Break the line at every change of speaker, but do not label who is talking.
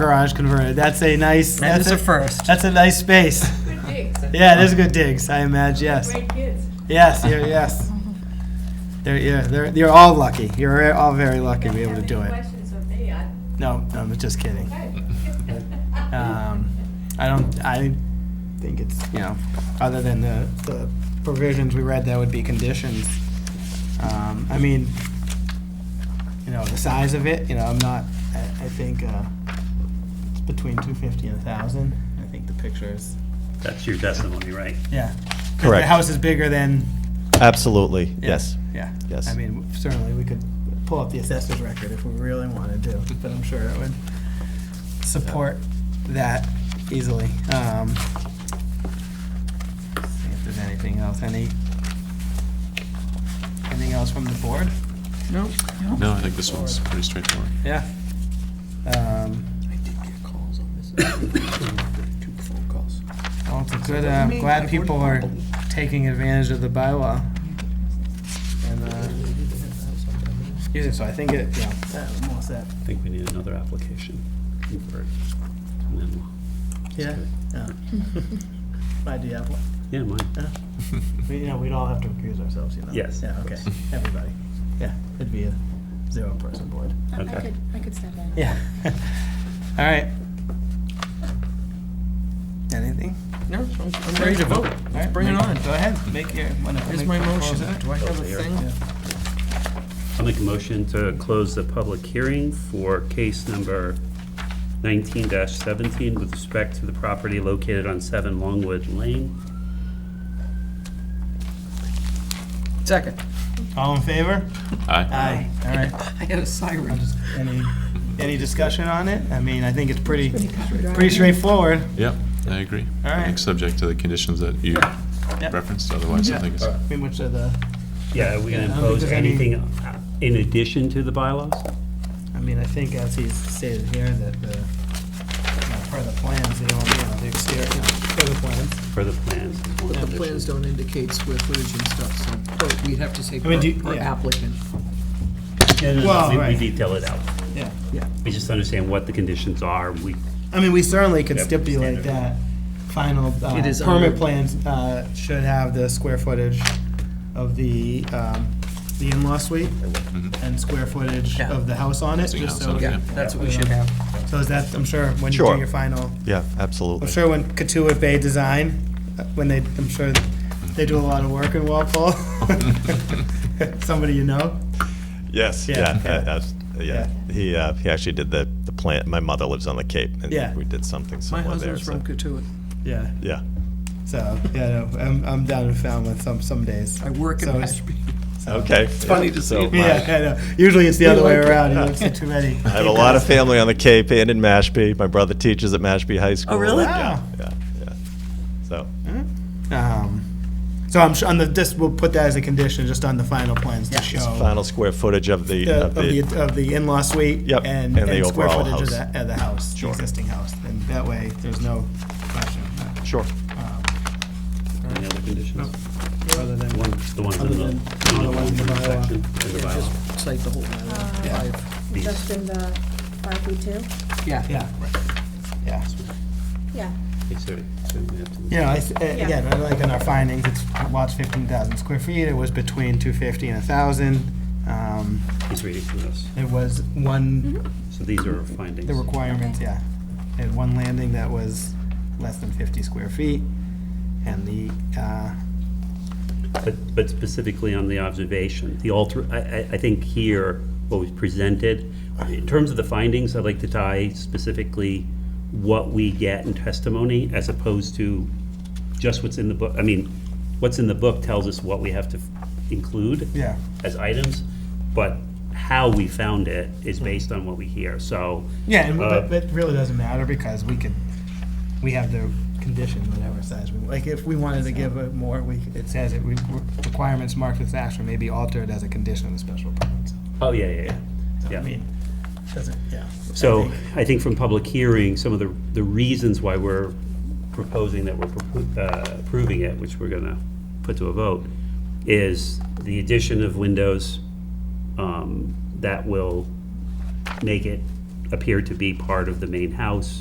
garage converted. That's a nice,
That is
that's
a
a,
first.
that's a nice space.
Good digs.
Yeah, it is good digs, I imagine, yes.
Great kids.
Yes, yeah, yes. They're, yeah, they're, you're all lucky. You're all very lucky to be able to do
Don't have any
it.
questions of me, I,
No, no, I'm just kidding.
okay.
Um, I don't, I think it's, you know, other than the, the provisions we read, that would be conditions. Um, I mean, you know, the size of it, you know, I'm not, I, I think, uh, it's between two fifty and a thousand. I think the picture is,
That's your testimony, right?
yeah. 'Cause
Correct.
The house is bigger than.
Absolutely,
yeah,
yes.
Yeah.
Yes.
I mean, certainly, we could pull up the assessor's record if we really wanted to, but I'm sure it would support that easily. Um, see if there's anything else, any, anything else from the board?
No.
No, I think this one's pretty straightforward.
Yeah. Um,
I did get calls on this. Two phone calls.
well, it's a good, uh, I'm glad people are taking advantage of the bylaw. And, uh, using, so I think it, yeah, I'm all set.
I think we need another application. for it. And then
Yeah, yeah. I do have one.
we'll- Yeah, mine.
We, you know, we'd all have to recuse ourselves, you know?
Yes,
Yeah,
of
okay, everybody. Yeah, it'd be a zero-person board.
I
Okay.
could, I could step in.
Yeah. All right. Anything?
No, I'm I'm ready to vote. Let's bring it on.
Go ahead, make your, whatever.
Here's my motion. Do I have a thing?
I'll make a motion to close the public hearing for case number 19-17 with respect to the property located on 7 Longwood Lane.
Second.
All in favor?
Aye.
Aye. All right.
I had a siren.
Any, any discussion on it? I mean, I think it's pretty, pretty straightforward.
Yep, I agree.
All
I
right.
think subject to the conditions that you
Yep.
referenced, otherwise I think it's.
I mean, which are the,
Yeah, are we going
Yeah, I don't
to
think
impose
there's any-
anything uh, in addition to the bylaws?
I mean, I think as he's stated here, that the, uh, part of the plans, the, only, you know, the exterior, you know, part of the plans.
For the plans. is one
The
condition.
plans don't indicate square footage and stuff, so but we'd have to say
mean, do you-
per per
yeah.
applicant.
No, no, no,
Well,
we-
right.
We detail it out.
Yeah.
We just understand what the conditions are. We,
I mean, we certainly could
Yep.
stipulate that final uh,
It is
permit
under-
plans uh, should have the square footage of the, um, the in-law suite and square footage
Yeah.
of the house on it,
Housing
just
Mm-hmm. house
so.
Oh,
on it,
Yeah, that's what we should have.
So is that, I'm sure, when you do
Sure.
your final,
Yeah,
I'm
absolutely.
sure when Katuah Bay Design, uh, when they, I'm sure they do a lot of work in Walpole. Somebody you know?
Yes,
Yeah,
yeah,
yeah.
uh, that's- yeah. He, uh, he actually did the, the plant, my mother lives on the Cape,
Yeah.
and we did something
My
similar there,
husband's
so,
from Katuah.
Yeah.
yeah.
So, yeah, no, I'm, I'm down in Falmouth some, some days.
I work in
So it's-
Mashpee.
Okay. It's
funny to see.
Yeah, I know. Usually it's the other way
like it.
around. You don't see too many.
uh, I have a lot of family on the Cape and in Mashpee. My brother teaches at Mashpee High School.
really?
Yeah, yeah, yeah. So,
Um, so I'm sure on the this we'll put that as a condition just on the final plans to show
final square footage of the,
the,
of the
Oh. of the in-law suite
Yep,
and,
and the
square
overall
footage of
house.
the, of the house,
Sure.
the existing house, and that way there's no question. uh,
Sure.
any other conditions?
Other than
One- The ones in
Other
the-
than-
in
other
the
ones in the bylaw.
section, in the
Yeah,
bylaw.
just cite the whole bylaw.
Yeah.
Five.
Just in the five feet two?
Yeah,
yeah, yeah.
Yeah.
Yes, sir. So we have to-
You know, I s- uh, again, I like in our findings, it's lots fifteen thousand square feet. It was between two fifty and a thousand. Um,
He's reading from this.
it was one.
So these are our findings.
The requirements, yeah. They had one landing that was less than fifty square feet, and the, uh,
But, but specifically on the observation, the alter, I, I, I think here, what was presented, in terms of the findings, I'd like to tie specifically what we get in testimony as opposed to just what's in the book. I mean, what's in the book tells us what we have to include
yeah,
as items, but how we found it is based on what we hear, so.
Hmm. yeah, and,
uh,
but, but it really doesn't matter, because we could, we have the condition, whatever size we, like, if we wanted to give it more, we, it says it, we, requirements marked as action may be altered as a condition of the special permit, so,
Oh, yeah, yeah, yeah.
so, I
Yeah.
mean, doesn't, yeah.
So I think from public hearing, some of the, the reasons why we're proposing that we're propo- uh, approving it, which we're gonna put to a vote, is the addition of windows um, that will make it appeared to be part of the main house.